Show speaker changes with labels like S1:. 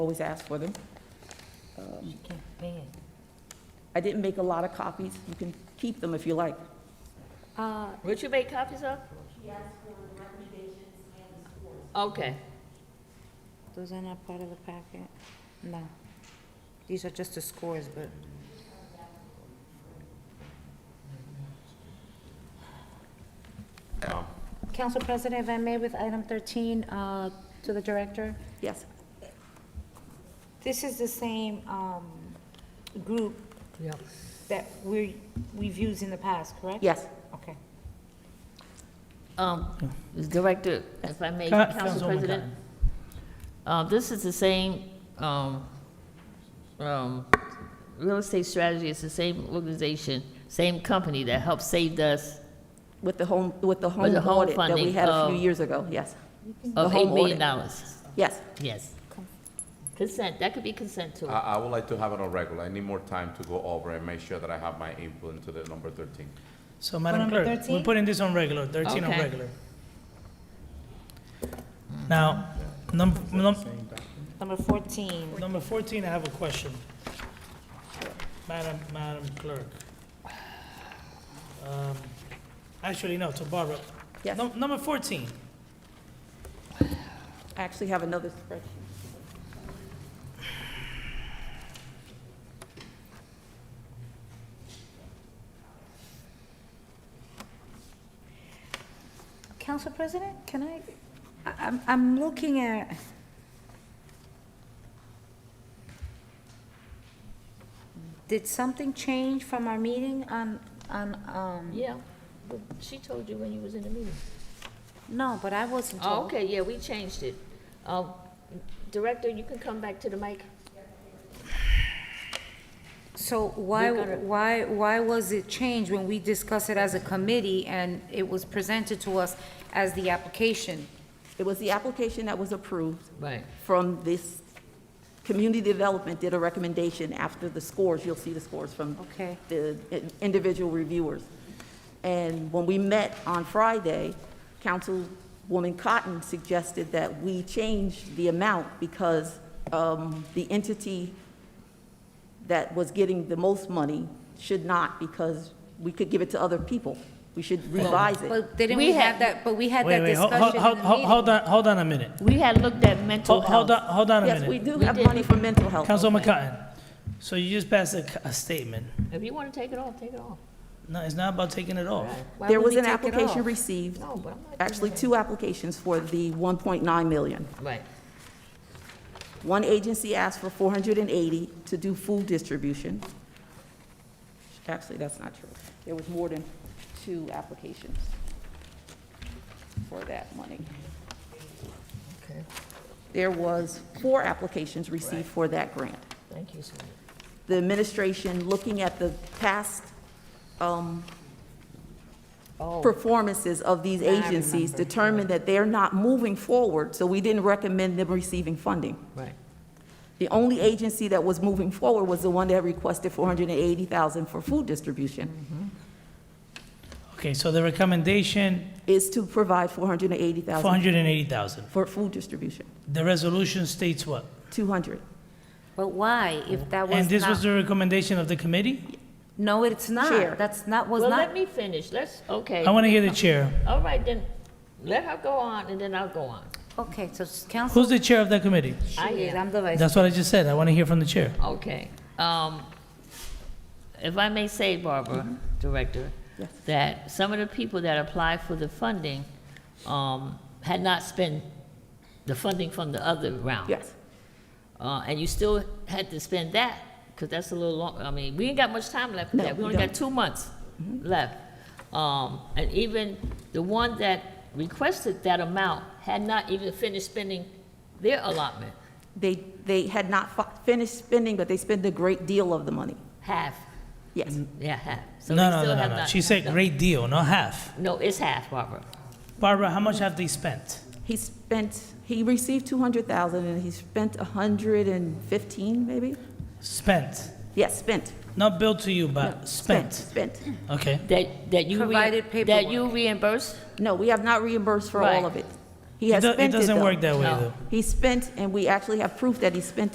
S1: always ask for them.
S2: You can't pay it.
S1: I didn't make a lot of copies. You can keep them if you like.
S2: Uh, Would you make copies of? Okay.
S3: Those are not part of the packet? No. These are just the scores, but
S4: Um,
S3: Council President, if I may, with item 13, uh, to the director,
S1: Yes.
S3: this is the same um, group
S2: Yeah.
S3: that we, we've used in the past, correct?
S1: Yes.
S3: Okay.
S2: Um, Director, if I may,
S5: Ca-
S2: Council
S5: Councilwoman
S2: President. Uh, this is the same, um, um, real estate strategy, it's the same organization, same company that helped save us
S1: With the home, with the
S2: With
S1: home
S2: the home
S1: audit that we
S2: funding,
S1: had a few
S2: um,
S1: years ago, yes. The
S2: of
S1: home
S2: eight million
S1: audit.
S2: dollars.
S1: Yes.
S2: Yes. Consent, that could be consent to
S4: I,
S5: Uh.
S2: it.
S4: I would like to have it on regular. I need more time to go over and make sure that I have my input into the number thirteen.
S5: So Madam
S3: number
S5: Clerk,
S3: 13?
S5: we're putting this on regular, 13 on
S2: Okay.
S5: regular. Now, num- num-
S3: Number 14,
S5: number 14, I have a question. Madam, Madam Clerk. Um, Actually, no, to Barbara.
S1: Yes.
S5: Num- Number 14,
S1: I actually have another spreadsheet.
S3: Council President, can I, I- I'm, I'm looking at. Did something change from our meeting on, on, um,
S2: Yeah, but she told you when you was in the meeting.
S3: no, but I wasn't told.
S2: Oh, okay, yeah, we changed it. Um, Director, you can come back to the mic.
S3: So why,
S2: We're gonna-
S3: why, why was it changed when we discussed it as a committee and it was presented to us as the application?
S1: It was the application that was approved
S2: Right.
S1: from this, Community Development did a recommendation after the scores, you'll see the scores from
S3: Okay.
S1: the i- individual reviewers. And when we met on Friday, Councilwoman Cotton suggested that we change the amount because um, the entity that was getting the most money should not, because we could give it to other people. We should revise it.
S3: But didn't
S2: We
S3: we have
S2: had-
S3: that, but we had
S5: wait,
S3: that
S5: wait, ho-
S3: discussion
S5: ho-
S3: in the
S5: ho- ho-
S3: meeting.
S5: hold on, hold on a minute.
S2: We had looked at mental
S5: Ho-
S2: health.
S5: Hold on, hold on a
S1: Yes, we
S5: minute.
S1: do
S2: We
S1: have
S2: did.
S1: money for mental health.
S5: Councilwoman
S2: Okay.
S5: Cotton, so you just passed a c- a statement.
S2: If you want to take it off, take it off.
S5: No, it's not about taking it off.
S3: Why
S1: There
S3: would
S1: was
S3: we
S1: an
S3: take it
S1: application
S3: off?
S1: received,
S2: No, but I'm not.
S1: actually two applications for the 1.9 million.
S2: Right.
S1: One agency asked for 480 to do food distribution. Actually, that's not true. There was more than two applications for that money.
S2: Okay,
S1: There was four applications received for that grant.
S2: thank you, sweetie.
S1: The administration, looking at the past um,
S2: Oh,
S1: performances of these
S3: I
S1: agencies,
S3: remember.
S1: determined that they're not moving forward, so we didn't recommend them receiving funding.
S2: right.
S1: The only agency that was moving forward was the one that requested 480,000 for food
S5: Mm-hmm.
S1: distribution,
S5: Okay, so the recommendation,
S1: is to provide 480,000
S5: 480,000.
S1: for food distribution,
S5: The resolution states what?
S1: 200.
S3: But why, if that
S5: And
S3: was
S5: this was
S3: not,
S5: the recommendation of the committee?
S3: no, it's
S1: Chair.
S3: not, that's not, was
S2: Well, let
S3: not.
S2: me finish, let's, okay.
S5: I want to hear the chair.
S2: All right, then, let her go on, and then I'll go on.
S3: Okay, so it's council,
S5: Who's the chair of that committee?
S2: I
S3: she is,
S2: am.
S3: I'm the vice.
S5: That's what I just said. I want to hear from the chair.
S2: Okay, um, if I may say, Barbara, Director,
S1: Yes.
S2: that some of the people that applied for the funding, um, had not spent the funding from the other round.
S1: Yes.
S2: Uh, and you still had to spend that, because that's a little long, I mean, we ain't got much time left for
S1: No,
S2: that. We
S1: we
S2: only
S1: don't.
S2: got
S1: Mm-hmm.
S2: two months left. Um, and even the one that requested that amount had not even finished spending their allotment,
S1: They, they had not fi- finished spending, but they spent a great deal of the money.
S2: half,
S1: Yes.
S5: Mm-hmm.
S2: yeah, half. So
S5: Mm. No,
S2: they
S5: no,
S2: still
S5: no, no,
S2: have
S5: no.
S2: not-
S5: She said
S2: no.
S5: great deal, not half.
S2: No, it's half, Barbara.
S5: Barbara, how much have they spent?
S1: He spent, he received 200,000 and he spent 115, maybe?
S5: Spent,
S1: Yes, spent.
S5: not billed to you, but spent.
S1: Spent.
S5: Okay.
S2: That, that you. rea-
S3: Provided
S2: That you
S3: paperwork.
S2: reimburse?
S1: No, we have not reimbursed for
S2: Right.
S1: all of it. He
S5: It
S1: has
S5: do-
S1: spent
S5: it
S1: it
S5: doesn't
S1: though.
S5: work that way
S2: No.
S5: though.
S1: He spent, and we actually have proof that he spent